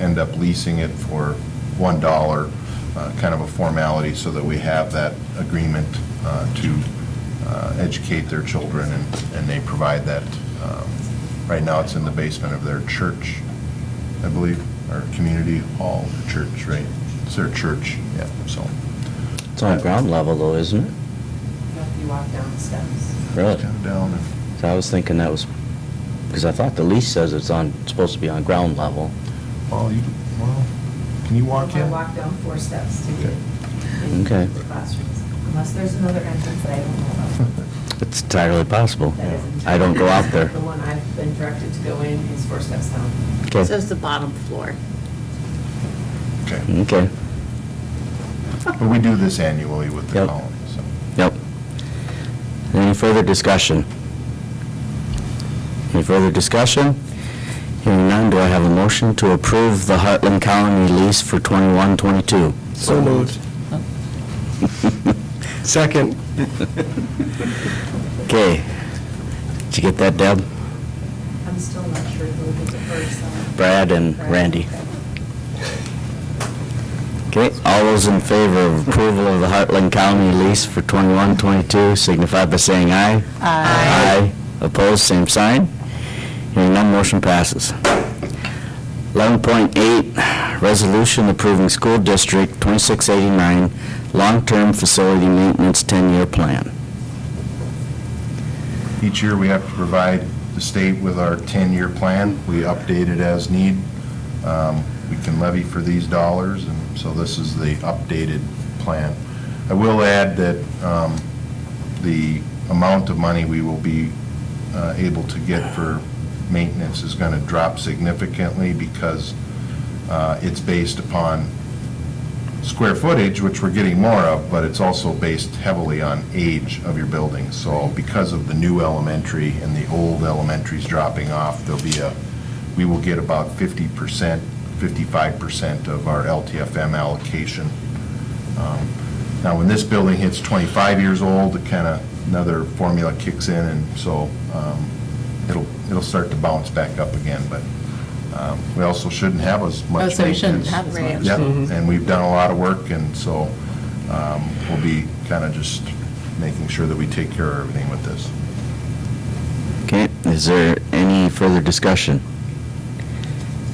end up leasing it for one dollar, uh, kind of a formality, so that we have that agreement uh, to uh, educate their children, and, and they provide that. um, Right now, it's in the basement of their church, I believe, or community hall, or church, right? It's their church, yeah, so. It's on ground level though, isn't it? If you walk down the steps. Really? Kind of down, and- 'Cause I was thinking that was, because I thought the lease says it's on, it's supposed to be on ground level. well, you, well, can you walk I in? walk down four steps to get Okay. into the classrooms, unless there's another entrance that I don't know about. It's entirely possible. That isn't- I don't go out there. The one I've been directed to go in is four steps down. It Okay, says the bottom floor. Okay. okay, But we do this annually with the Yep. colony, so. yep. Any further discussion? Any further discussion? Hearing none, do I have a motion to approve the Heartland Colony lease for 21, 22? So moved. Second. Okay. Did you get that, Deb? I'm still not sure who was the first. um, Brad and Brad. Randy. Okay, all those in favor of approval of the Heartland County lease for 21-22 signify by saying aye. Aye. Opposed, same sign. Hearing none, motion passes. 11.8, resolution approving school district 2689 long-term facility maintenance 10-year plan. Each year, we have to provide the state with our 10-year plan. We update it as need. Um, We can levy for these dollars, and so this is the updated plan. I will add that um, the amount of money we will be uh, able to get for maintenance is going to drop significantly because uh, it's based upon square footage, which we're getting more of, but it's also based heavily on age of your building. So because of the new elementary and the old elementaries dropping off, there'll be a, we will get about 50%, 55% of our LTFM allocation. Um, Now, when this building hits 25 years old, it kind of, another formula kicks in, and so um, it'll, it'll start to bounce back up again, but um, we also shouldn't have as much Oh, maintenance. so we shouldn't have as much. Mm-hmm. Yep, and we've done a lot of work, and so um, we'll be kind of just making sure that we take care of everything with this. Okay, is there any further discussion?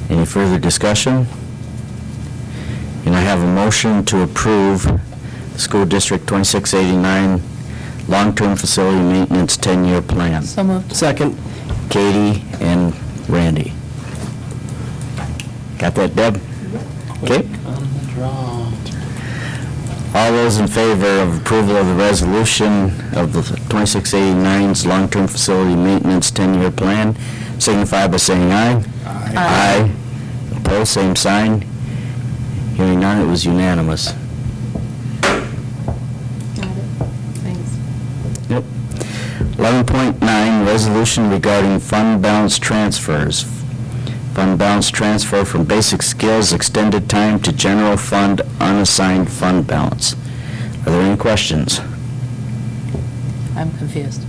Any further discussion? And I have a motion to approve School District 2689 Long-Term Facility Maintenance 10-Year Plan. So moved. Second. Katie and Randy. Got that, Deb? Okay. All those in favor of approval of the resolution of the 2689's long-term facility maintenance 10-year plan signify by saying aye. Aye. Opposed, same sign. Hearing none, it was unanimous. Got it. Thanks. Yep. 11.9, resolution regarding fund balance transfers. Fund balance transfer from basic skills extended time to general fund unassigned fund balance. Are there any questions? I'm confused.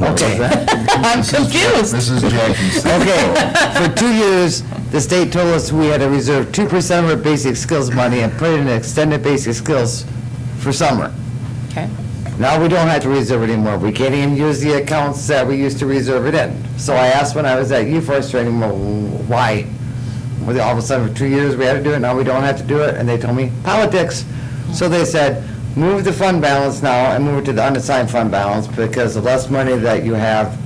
Okay. I'm confused. This is Jackie's. Okay, for two years, the state told us we had to reserve 2% of our basic skills money and put it in extended basic skills for summer. Okay. Now we don't have to reserve it anymore. We can't even use the accounts that we used to reserve it in. So I asked when I was at E U First Training, well, why? Well, all of a sudden, for two years, we had to do it, now we don't have to do it, and they told me, politics. So they said, move the fund balance now and move it to the unassigned fund balance, because the less money that you have,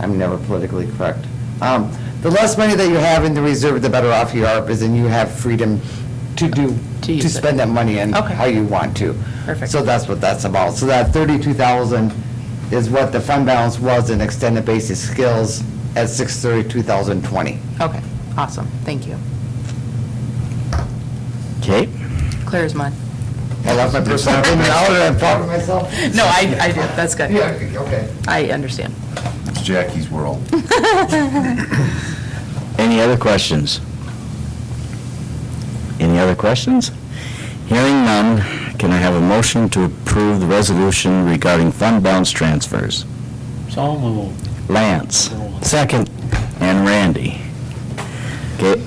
I'm never politically correct. Um, The less money that you have in the reserve, the better off you are, because then you have freedom to do, To use to it. spend that money in Okay. how you want to. Perfect. So that's what that's about. So that thirty-two thousand is what the fund balance was in extended basic skills at six thirty, two thousand twenty. Okay. Awesome. Thank you. Okay. Clear as mud. I left my personal opinion out and I thought to myself. No, I, I did. That's good. Yeah, okay. I understand. It's Jackie's world. Any other questions? Any other questions? Hearing none, can I have a motion to approve the resolution regarding fund balance transfers? So moved. Lance. Second. And Randy. Okay,